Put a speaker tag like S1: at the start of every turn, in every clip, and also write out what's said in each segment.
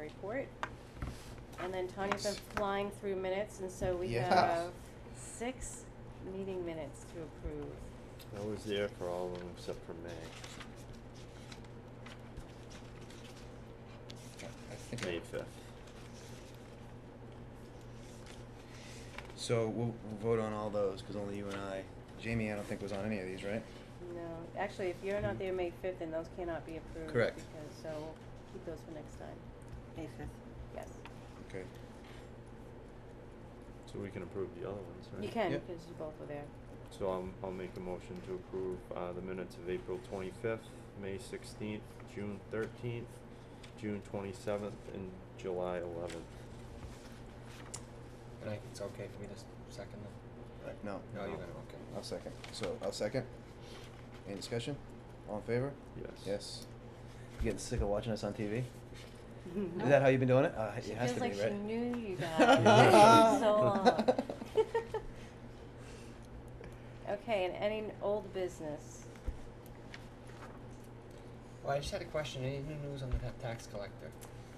S1: report. And then Tanya's been
S2: Yes.
S1: flying through minutes, and so we
S2: Yeah.
S1: have six meeting minutes to approve.
S3: I was there for all of them except for May,
S2: I I think. I-
S3: May fifth.
S2: So we'll, we'll vote on all those, cause only you and I, Jamie, I don't think was on any of these, right?
S1: No, actually, if you're not there May fifth, then those cannot be approved.
S2: Hmm. Correct.
S1: Because, so we'll keep those for next time.
S4: May fifth.
S1: Yes.
S2: Okay.
S3: So we can approve the other ones, right?
S1: You can,
S2: Yep.
S1: because you both were there.
S3: So i I'll make a motion to approve, uh, the minutes of April twenty-fifth, May sixteenth, June thirteenth, June twenty-seventh, and July eleventh.
S5: And I, it's okay for me to s- second them?
S2: Uh, No.
S5: No, you're gonna, okay.
S2: I'll second, so I'll second. Any discussion? All in favor?
S3: Yes.
S2: Yes. You getting sick of watching us on TV? Is that how you've been doing it? Uh,
S1: She
S2: it has
S1: feels
S2: to be,
S1: like
S2: right?
S1: she knew you guys so long. Okay, and any n- old business?
S5: Well, I just had a question, any new news on the ta- tax collector?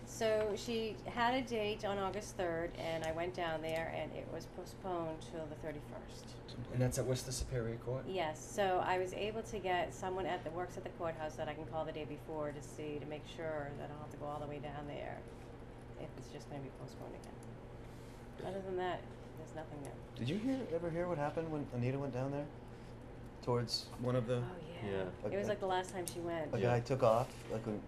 S1: So she had a date on August third, and I went down there, and it was postponed till the thirty-first.
S5: And that's at Worcester Superior Court?
S1: Yes, so I was able to get someone at the, works at the courthouse that I can call the day before to see, to make sure that I don't have to go all the way down there, if it's just gonna be postponed again. Other than that, there's nothing new.
S2: Did you hear, ever hear what happened when Anita went down there? Towards one
S1: Oh,
S2: of the,
S3: Yeah.
S1: It was
S2: Okay.
S1: like the last time she went.
S2: a
S3: Yeah.
S2: guy took off, like, and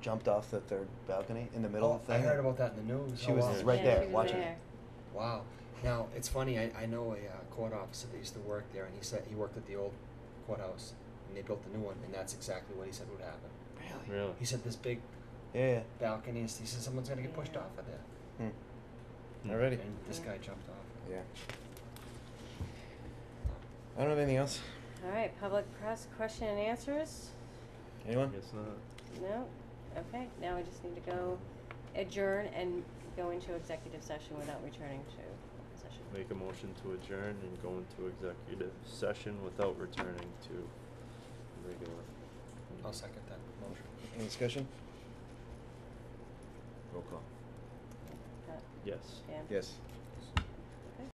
S2: jumped off the third balcony in the middle
S5: Oh,
S2: of the thing?
S5: I heard about that in the news.
S2: She
S5: Oh,
S2: was
S5: wow.
S2: right
S1: Yeah,
S2: there,
S1: she was
S2: watching it.
S1: there.
S5: Wow. Now, it's funny, I, I know a uh, court officer that used to work there, and he said, he worked at the old courthouse, and they built the new one, and that's exactly what he said would happen.
S3: Really?
S5: He said this big
S2: Yeah,
S5: balcony, he said someone's gonna get pushed
S1: Yeah.
S5: off of there.
S2: yeah. Hmm.
S3: Hmm.
S2: Alrighty.
S5: And this
S1: Yeah.
S5: guy jumped off.
S2: Yeah. I don't have anything else.
S1: All right, public press question and answers?
S2: Anyone?
S3: Guess not.
S1: No? Okay, now we just need to go adjourn and go into executive session without returning to open session.
S3: Make a motion to adjourn and go into executive session without returning to regular.
S5: I'll second that motion.
S2: Any discussion? Roll call.
S1: Uh,
S3: Yes.
S1: Dan?
S2: Yes.